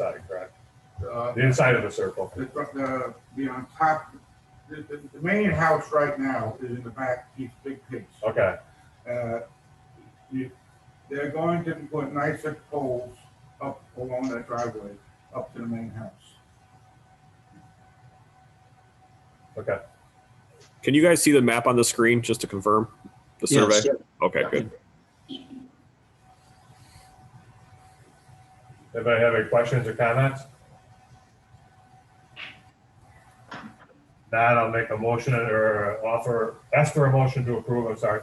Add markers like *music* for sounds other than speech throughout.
side, correct? Uh, The inside of the circle. The, the, the on top, the, the, the main house right now is in the back, east big piece. Okay, Uh, you- They're going to put nicer poles up along that driveway, up to the main house. okay. Can you guys see the map on the screen just to confirm the survey? Yes. Okay, good. Anybody have any questions or comments? Not, I'll make a motion or offer, ask for a motion to approve, I'm sorry.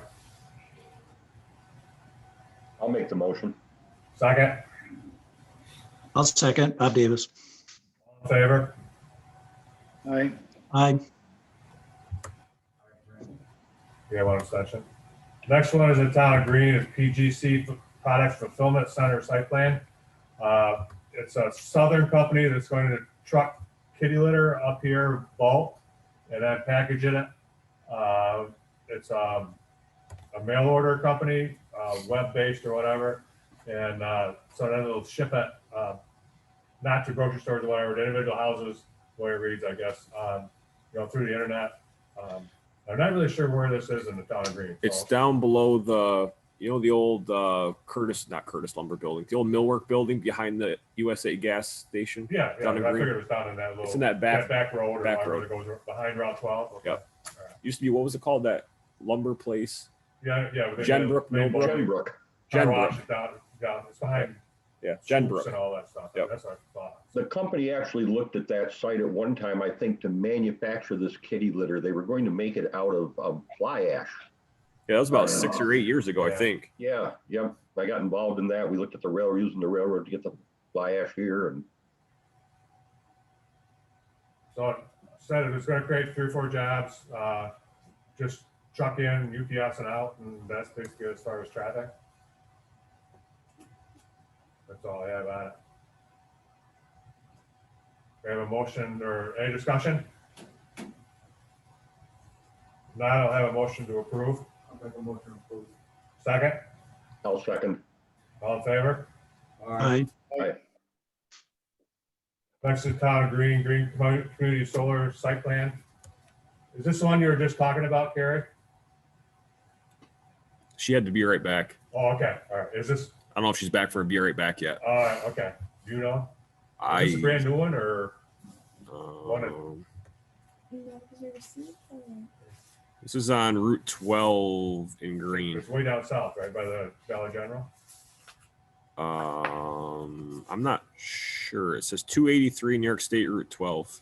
I'll make the motion. Second, I'll second. Bob Davis. all in favor? Aye. Aye. We have one extension. Next one is the town of Green, is PGC Products Fulfillment Center Site Plan. Uh, It's a southern company that's going to truck kitty litter up here bulk and then package it. Uh, It's um, a mail order company, uh, web-based or whatever. And uh, so then it'll ship it, uh, not to grocery stores or whatever, to individual houses, the way it reads, I guess, um, you know, through the internet. Um, I'm not really sure where this is in the town of Green. so- It's down below the, you know, the old uh, Curtis, not Curtis lumber building, the old millwork building behind the USA gas station. Yeah, yeah, I down in Green. figured it was down in that little. It's in that that back, Back road or back whatever that road. goes behind Route twelve. Okay. Yep. used to be, what was it called? That lumber place? Yeah, yeah. within Jenbrook, the- main Millbrook. block. Jenbrook. Car Jenbrook. wash is Down, down, it's behind. Yeah, Swoops And Jenbrook. all that stuff. Yep. That's what I thought. The company actually looked at that site at one time, I think, to manufacture this kitty litter. They were going to make it out of um, fly ash. Yeah, that was about six or eight years ago, I think. Yeah, yep. I got involved in that. We looked at the rail, using the railroad to get the fly ash here and So it said it was gonna create three or four jobs, uh, just truck in, UPS and out, and that's basically as far as traffic. That's all I have on it. We have a motion or any discussion? Now I'll have a motion to approve. I'll make a motion to approve. Second, I'll second. all in favor? All right. Aye. Next is Town of Green, Green Commu- Community Solar Site Plan. Is this the one you were just talking about, Gary? She had to be right back. Oh, okay, all right. Is this, I don't know if she's back for a be right back yet. All right, Uh, okay. Do you know? Is this a I, brand new one or? um, You know, 'cause you're receiving. this is on Route 12 in Green. It's way down south, right, by the Valley General? Um, I'm not sure. It says 283 New York State Route 12.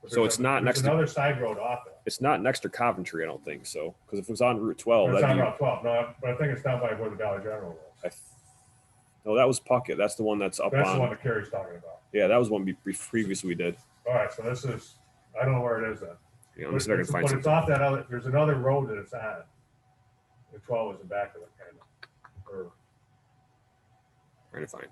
But So there's it's a- not there's next to- Another side road off it. It's not next to Coventry, I don't think so. Because if it was on Route 12, It's Oh, that'd on be, Route twelve, no, but I think it's down by where the Valley General was. I th- no, that was Puckett. That's the one that's up That's the on. one that Carrie's talking about. Yeah, that was one we we previously we did. All right, so this is, I don't know where it is then. Yeah, But let me it's see if I can find but some. it's off that other, there's another road that it's on. The twelve is the back of it, kind of, or Trying to find.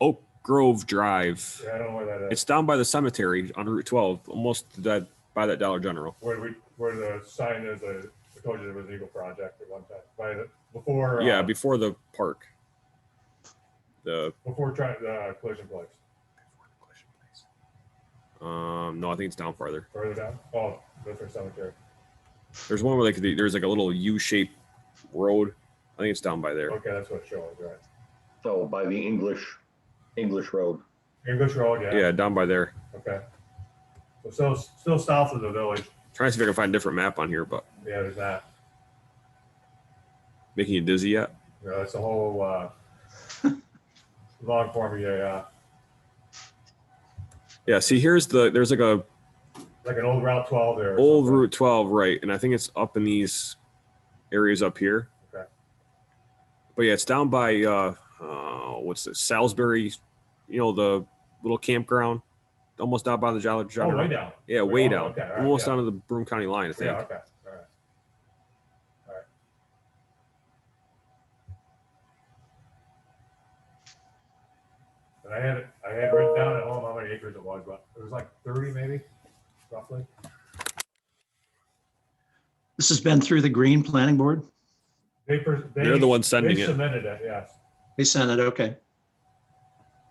Oak Grove Drive. Yeah, I don't know where that is. It's down by the cemetery on Route 12, almost to that by that Dollar General. Where we, where the sign is, uh, I told you there was an Eagle Project at one time, by the, before. uh, Yeah, before the park. The Before trying, uh, collision place, um no, I think it's down farther. further down, oh, different cemetery, There's one where like the, there's like a little U-shaped road. I think it's down by there. okay, that's what it shows, right? So by the English, English road. English Road, yeah, Yeah, down by there. okay. So still, still south of the village, Trying to see if I can find a different map on here, but yeah, there's that, making you dizzy yet? you know, that's a whole, uh, *laughs* long form of, yeah, Yeah. See, here's the there's like a like an old Route twelve there. or old something. Route 12, right? And I think it's up in these areas up here. Okay. But yeah, it's down by uh, uh what's it, Salisbury? You know the little campground, almost down by the Jolly Oh, way General. down, Yeah, Way way down, down, okay, all right, almost yeah. down to the Broome County line, I think. yeah, okay, all right. And I had, I had written down at home how many acres it was, but it was like thirty maybe, roughly. This has been through the Green Planning Board. They, pres- they. They're the ones sending they it. Submitted it, yes. They sent it. Okay.